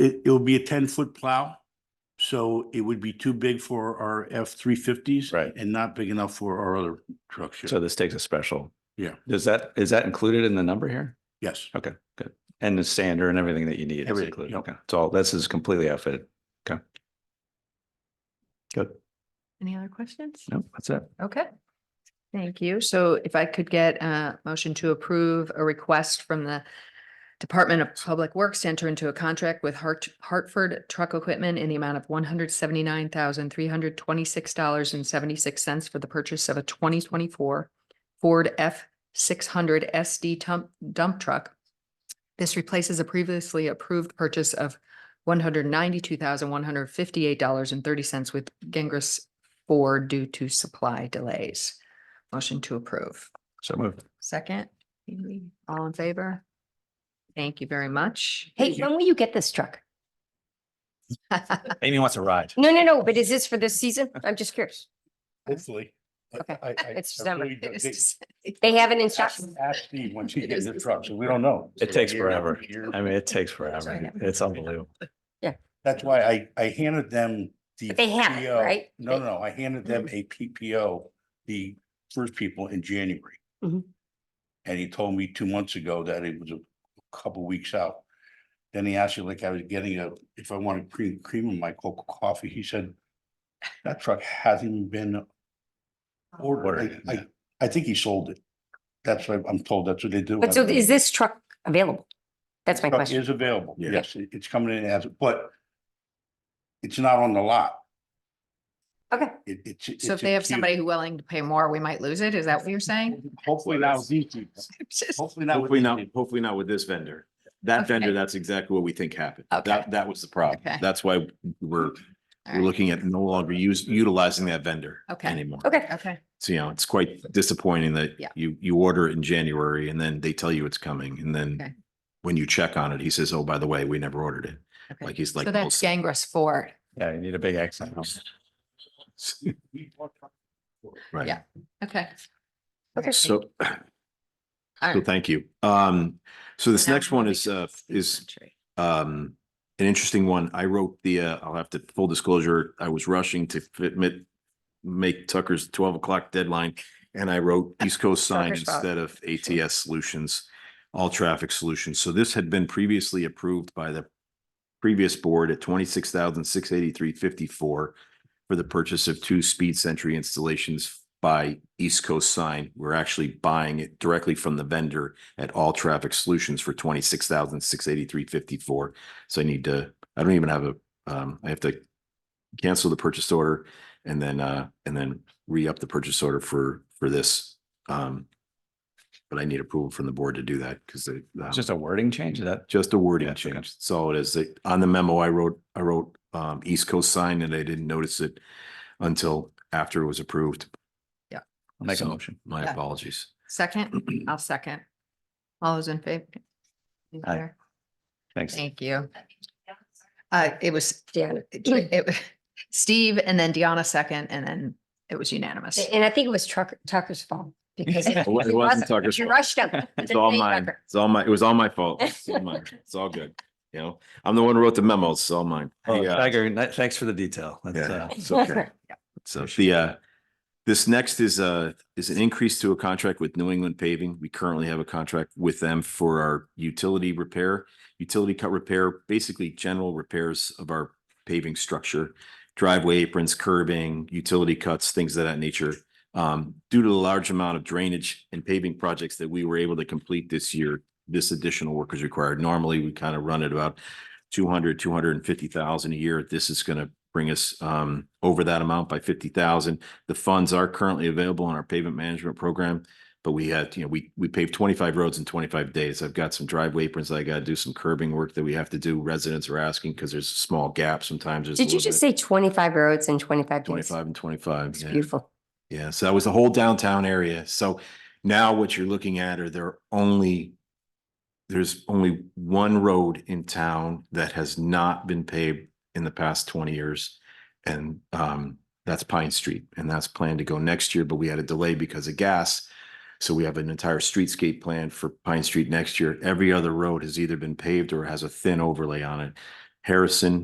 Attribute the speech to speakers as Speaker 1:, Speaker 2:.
Speaker 1: It, it'll be a ten-foot plow, so it would be too big for our F three fifties.
Speaker 2: Right.
Speaker 1: And not big enough for our other trucks
Speaker 2: So
Speaker 1: here.
Speaker 2: this takes a special.
Speaker 1: Yeah.
Speaker 2: Is that, is that included in the number here?
Speaker 1: Yes,
Speaker 2: Okay, good. And the sander and everything that you need is
Speaker 1: Everything,
Speaker 2: included.
Speaker 1: yeah.
Speaker 2: Okay, it's all, this is completely outfitted. Okay. Good.
Speaker 3: Any other questions?
Speaker 2: No, that's it.
Speaker 3: Okay. Thank you. So if I could get a motion to approve a request from the Department of Public Works to enter into a contract with Hart- Hartford Truck Equipment in the amount of one hundred seventy-nine thousand, three hundred twenty-six dollars and seventy-six cents for the purchase of a twenty twenty-four Ford F six hundred SD dump, dump truck. This replaces a previously approved purchase of one hundred ninety-two thousand, one hundred fifty-eight dollars and thirty cents with Gengris four due to supply delays. Motion to approve.
Speaker 2: So moved.
Speaker 3: Second, all in favor? Thank you very much.
Speaker 4: Hey, when will you get this truck?
Speaker 2: Amy wants a ride.
Speaker 4: No, no, no, but is this for this season? I'm just curious.
Speaker 1: hopefully. I-
Speaker 4: Okay.
Speaker 1: I- I-
Speaker 4: It's
Speaker 1: I
Speaker 4: December.
Speaker 1: really don't think-
Speaker 4: They have it in stock.
Speaker 1: Ask ask Steve when she gets in the truck, so we don't know.
Speaker 2: It takes
Speaker 1: Year, another
Speaker 2: forever.
Speaker 1: year.
Speaker 2: I mean, it takes forever. It's unbelievable.
Speaker 1: That's why I, I handed them the.
Speaker 4: But they have it,
Speaker 1: PO.
Speaker 4: right?
Speaker 1: No,
Speaker 4: They- Mhm.
Speaker 1: no, I handed them a PPO, the first people in January.
Speaker 4: Mhm.
Speaker 1: And he told me two months ago that it was a couple weeks out. Then he asked me like I was getting a, if I wanted cream, cream in my cocoa coffee, he said, that truck hasn't even been ordered.
Speaker 2: Ordered,
Speaker 1: I,
Speaker 2: yeah.
Speaker 1: I, I think he sold it. That's what I'm told, that's what they do.
Speaker 4: But so is this truck available? That's my
Speaker 1: Truck
Speaker 4: question.
Speaker 1: Is available,
Speaker 2: Yeah.
Speaker 1: yes, it- it's coming in as, but it's not on the lot.
Speaker 4: Okay.
Speaker 1: It, it's.
Speaker 3: So if
Speaker 1: it's a
Speaker 3: they have
Speaker 1: queue.
Speaker 3: somebody who willing to pay more, we might lose it. Is that what you're
Speaker 5: Oh.
Speaker 3: saying?
Speaker 1: Hopefully not with these people. Hopefully not. with
Speaker 5: Hopefully
Speaker 1: these
Speaker 5: not,
Speaker 1: people.
Speaker 5: hopefully not with this vendor. That
Speaker 3: Okay.
Speaker 5: vendor, that's exactly what we think happened.
Speaker 3: Okay.
Speaker 5: That, that was the problem.
Speaker 3: Okay.
Speaker 5: That's why we're,
Speaker 3: All
Speaker 5: we're
Speaker 3: right.
Speaker 5: looking at no longer use, utilizing that vendor
Speaker 3: Okay.
Speaker 5: anymore.
Speaker 4: Okay,
Speaker 3: Okay,
Speaker 5: So, you know, it's quite disappointing that
Speaker 3: Yeah.
Speaker 5: you, you order it in January and then they tell you it's coming. And
Speaker 3: Okay.
Speaker 5: then when you check on it, he says, oh, by the way, we never ordered it. Like
Speaker 3: okay.
Speaker 5: he's like.
Speaker 3: So
Speaker 5: well,
Speaker 3: that's Gangris four.
Speaker 2: Yeah, you need a big accent.
Speaker 5: Right.
Speaker 3: yeah. Okay.
Speaker 4: okay.
Speaker 5: So,
Speaker 3: All
Speaker 5: so
Speaker 3: right.
Speaker 5: thank you. Um, so this
Speaker 3: Now
Speaker 5: next
Speaker 3: we're
Speaker 5: one
Speaker 3: moving
Speaker 5: is,
Speaker 3: to
Speaker 5: uh,
Speaker 3: Steve
Speaker 5: is
Speaker 3: Gentry.
Speaker 5: um, an interesting one. I wrote the, uh, I'll have to full disclosure, I was rushing to fit, mit- make Tucker's twelve o'clock deadline. And I wrote East Coast Sign
Speaker 4: Tucker's fault.
Speaker 5: instead of ATS Solutions, All Traffic Solutions. So this had been previously approved by the previous board at twenty-six thousand, six eighty-three, fifty-four for the purchase of two speed sentry installations by East Coast Sign. We're actually buying it directly from the vendor at All Traffic Solutions for twenty-six thousand, six eighty-three, fifty-four. So I need to, I don't even have a, um, I have to cancel the purchase order and then, uh, and then re-up the purchase order for, for this. Um, but I need approval from the board to do that because they. um,
Speaker 2: It's just a wording change is that.
Speaker 5: just a
Speaker 2: Yeah,
Speaker 5: wording
Speaker 2: okay.
Speaker 5: change. That's all it is. They- On the memo, I wrote, I wrote um East Coast sign and I didn't notice it until after it was approved.
Speaker 2: I'll Make a
Speaker 5: So,
Speaker 2: motion.
Speaker 5: My
Speaker 3: Yeah.
Speaker 5: apologies.
Speaker 3: Second, I'll second. All those in favor? In
Speaker 2: Aye.
Speaker 3: favor?
Speaker 2: Thanks.
Speaker 3: Thank you. Uh, it was,
Speaker 4: Deanna.
Speaker 3: it was Steve and then Deanna second, and then it was unanimous.
Speaker 4: And I think it was Trucker, Tucker's fault because.
Speaker 2: It
Speaker 4: if
Speaker 5: wasn't
Speaker 4: he wasn't,
Speaker 5: Tucker's
Speaker 4: You
Speaker 5: fault.
Speaker 4: rushed him.
Speaker 5: It's all mine. It's all my, it was all my fault. It's all mine. It's all good. You know, I'm the one who wrote the memo. It's all mine.
Speaker 2: Oh,
Speaker 5: Hey, uh,
Speaker 2: Tiger, ni- thanks for the detail. That's,
Speaker 5: Yeah,
Speaker 2: uh,
Speaker 5: it's okay. So the, uh, this next is a, is an increase to a contract with New England Paving. We currently have a contract with them for our utility repair, utility cut repair, basically general repairs of our paving structure, driveway aprons, curbing, utility cuts, things of that nature. Um, due to the large amount of drainage and paving projects that we were able to complete this year, this additional work is required. Normally, we kind of run at about 200, 250,000 a year. This is going to bring us um over that amount by 50,000. The funds are currently available in our pavement management program, but we had, you know, we we paved 25 roads in 25 days. I've got some driveway aprons. I got to do some curbing work that we have to do. Residents are asking because there's a small gap sometimes. there's a
Speaker 4: Did you
Speaker 5: little
Speaker 4: just
Speaker 5: bit-
Speaker 4: say twenty-five roads and twenty-five days?
Speaker 5: 25 and 25.
Speaker 4: It's
Speaker 5: yeah.
Speaker 4: beautiful.
Speaker 5: Yeah, so that was the whole downtown area. So now what you're looking at are there are only, there's only one road in town that has not been paved in the past twenty years. And um, that's Pine Street and that's planned to go next year, but we had a delay because of gas. So we have an entire streetscape plan for Pine Street next year. Every other road has either been paved or has a thin overlay on it. Harrison,